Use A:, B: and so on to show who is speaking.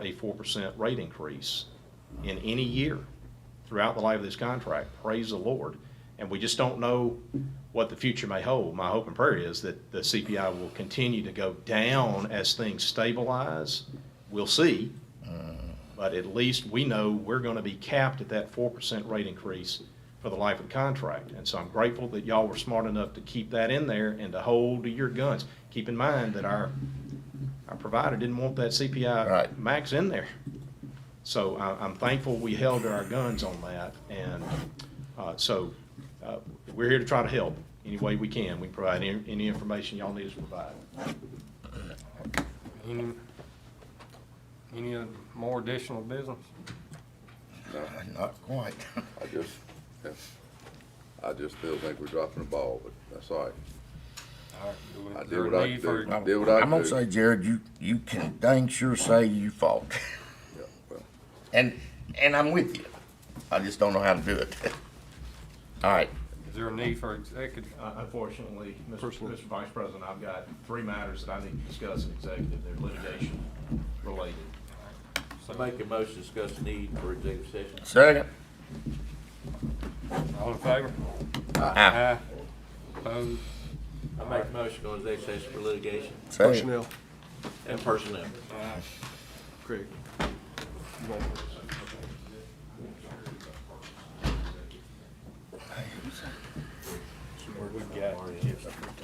A: a four percent rate increase in any year throughout the life of this contract. Praise the Lord. And we just don't know what the future may hold. My hope and prayer is that the CPI will continue to go down as things stabilize. We'll see. But at least we know we're going to be capped at that four percent rate increase for the life of the contract. And so I'm grateful that y'all were smart enough to keep that in there and to hold to your guns. Keep in mind that our, our provider didn't want that CPI
B: Right.
A: max in there. So I, I'm thankful we held to our guns on that. And, uh, so, uh, we're here to try to help any way we can. We can provide any, any information y'all need us to provide.
C: Any, any other- more additional business?
B: Not quite.
D: I just, yeah, I just still think we're dropping the ball, but that's all right.
C: All right, do we-
D: I did
C: there
D: what I
C: need
D: could do.
C: for-
D: I did what I
B: am gonna
D: could.
B: say, Jared, you, you can dang sure say you fought.
D: Yeah, well,
B: And, and I'm with you. I just don't know how to do it. All right,
C: Is there a need for executive?
A: Uh, Unfortunately, Mr. Mr. Vice President, I've got three matters that I need to discuss in executive. They're litigation related.
E: I make a motion to discuss the need for executive session.
B: second.
C: All in favor?
B: Aye.
C: Opposed?
E: I make a motion to go into executive session for litigation
B: Second.
E: and personnel.
C: We've got